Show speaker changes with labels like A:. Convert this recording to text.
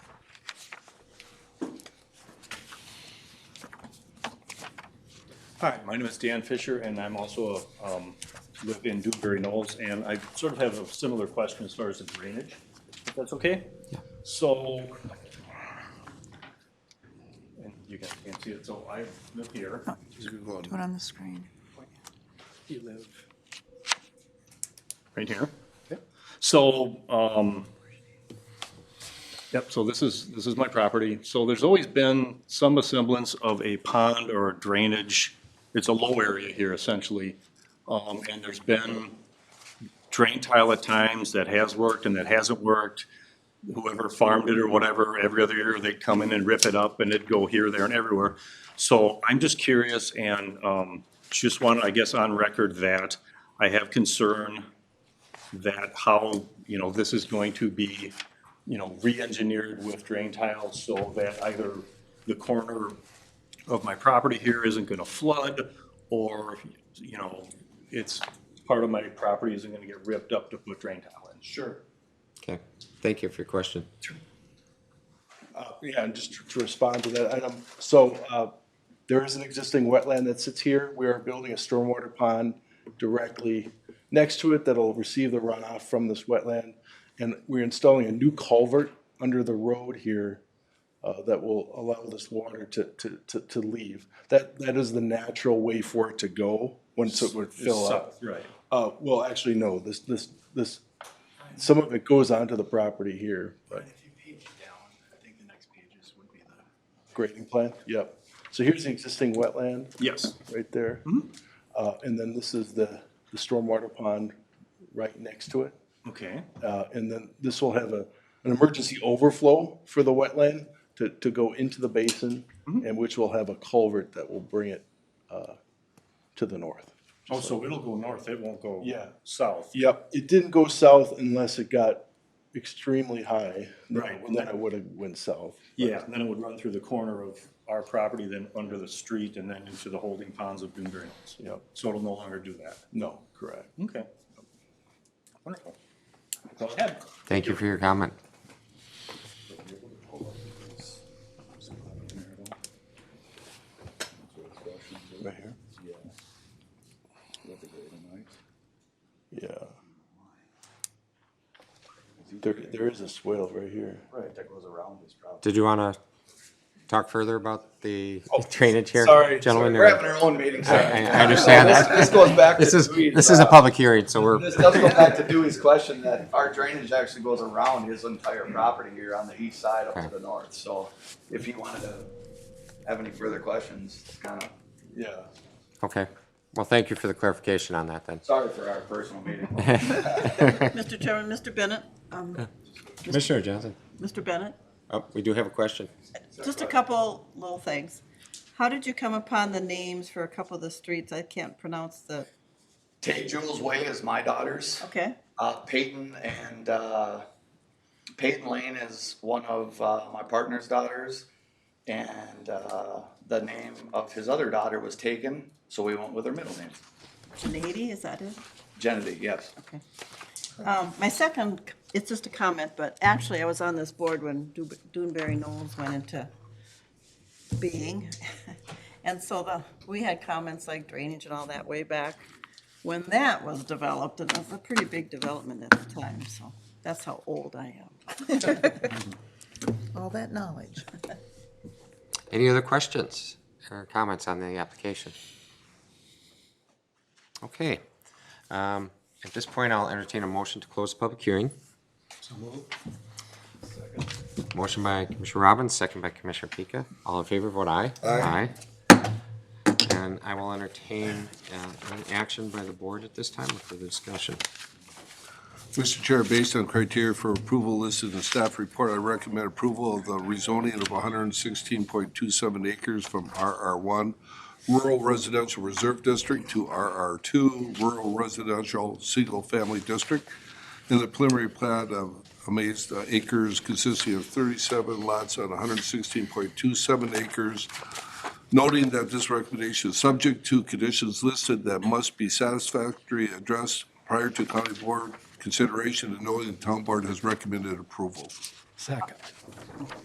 A: Hi, my name is Dan Fisher, and I'm also, a, um, live in Dewberry Knolls, and I sort of have a similar question as far as the drainage, if that's okay? Yeah. So, and you guys can't see it, so I live here.
B: Do it on the screen.
A: You live. Right here. So, um, yep, so this is, this is my property. So there's always been some semblance of a pond or a drainage. It's a low area here essentially. Um, and there's been drain tile at times that has worked and that hasn't worked. Whoever farmed it or whatever, every other year they'd come in and rip it up and it'd go here, there and everywhere. So I'm just curious and, um, just want, I guess, on record that I have concern that how, you know, this is going to be, you know, re-engineered with drain tiles so that either the corner of my property here isn't gonna flood or, you know, it's, part of my property isn't gonna get ripped up to put drain tile in. Sure.
C: Okay, thank you for your question.
D: Uh, Yeah, and just to respond to that item, so uh, there is an existing wetland that sits here. We are building a stormwater pond directly next to it that'll receive the runoff from this wetland. And we're installing a new culvert under the road here uh, that will allow this water to, to, to, to leave. That, that is the natural way for it to go once it would fill up.
A: Right.
D: Uh, Well, actually, no, this, this, this, some of it goes onto the property here, but.
E: If you page it down, I think the next pages would be the.
D: Grading plan, yep. So here's the existing wetland,
A: Yes.
D: right there.
E: Mm-hmm.
D: Uh, and then this is the, the stormwater pond right next to it.
A: Okay.
D: Uh, and then this will have a, an emergency overflow for the wetland to, to go into the basin,
E: Mm-hmm.
D: and which will have a culvert that will bring it, uh, to the north.
A: Oh, so it'll go north, it won't go
D: Yeah.
A: south?
D: Yep, it didn't go south unless it got extremely high.
A: Right.
D: Then it would have went south.
A: Yeah, and then it would run through the corner of our property, then under the street, and then into the holding ponds of Dewberry Hills.
D: Yep,
A: So it'll no longer do that.
D: no, correct.
A: Okay. Wonderful. Go ahead.
C: Thank you for your comment.
D: Right here? Yeah. There, there is a swale right here.
E: Right, that goes around this property.
C: Did you want to talk further about the drainage here?
F: Oh, Sorry,
C: Gentlemen,
F: sorry,
C: or-
F: we're having our own meeting.
C: I,
F: Sorry.
C: I I understand
F: This-
C: that.
F: This goes back to
C: This is,
F: Dewey's,
C: this is a
F: uh,
C: public hearing, so we're,
F: This does go back to Dewey's question that our drainage actually goes around his entire property here on the east side up to
C: Okay.
F: the north. So if you wanted to have any further questions, kind of,
D: Yeah.
C: okay. Well, thank you for the clarification on that then.
F: sorry for our personal meeting.
B: Mr. Chairman, Mr. Bennett, um,
C: Commissioner Johnson.
B: Mr. Bennett,
C: Oh, we do have a question.
B: just a couple little things. How did you come upon the names for a couple of the streets? I can't pronounce the,
F: Tay Jules Way is my daughter's.
B: okay,
F: Uh, Peyton and uh, Peyton Lane is one of uh, my partner's daughters, and uh, the name of his other daughter was taken, so we went with her middle name,
B: Nady, is that it?
F: Genevieve. Yes.
B: Okay. Um, my second, it's just a comment, but actually I was on this board when Du- Dunbarry Knowles went into being. And so the, we had comments like drainage and all that way back when that was developed, and it was a pretty big development at the time, so that's how old I am.
G: all that knowledge.
C: Any other questions or comments on the application? Okay. Um, At this point, I'll entertain a motion to close the public hearing. Motion by Commissioner Robbins, second by Commissioner Pika. All in favor, vote aye. Aye. And I will entertain uh, an action by the board at this time for the discussion.
H: Mr. Chair, based on criteria for approval listed in the staff report, I recommend approval of the rezoning of 116.27 acres from RR1 Rural Residential Reserve District to RR2 Rural Residential Single Family District. In the preliminary plat of amazed uh, acres consisting of 37 lots on 116.27 acres noting that this recommendation is subject to conditions listed that must be satisfactorily addressed prior to county board consideration and knowing the town board has recommended approval.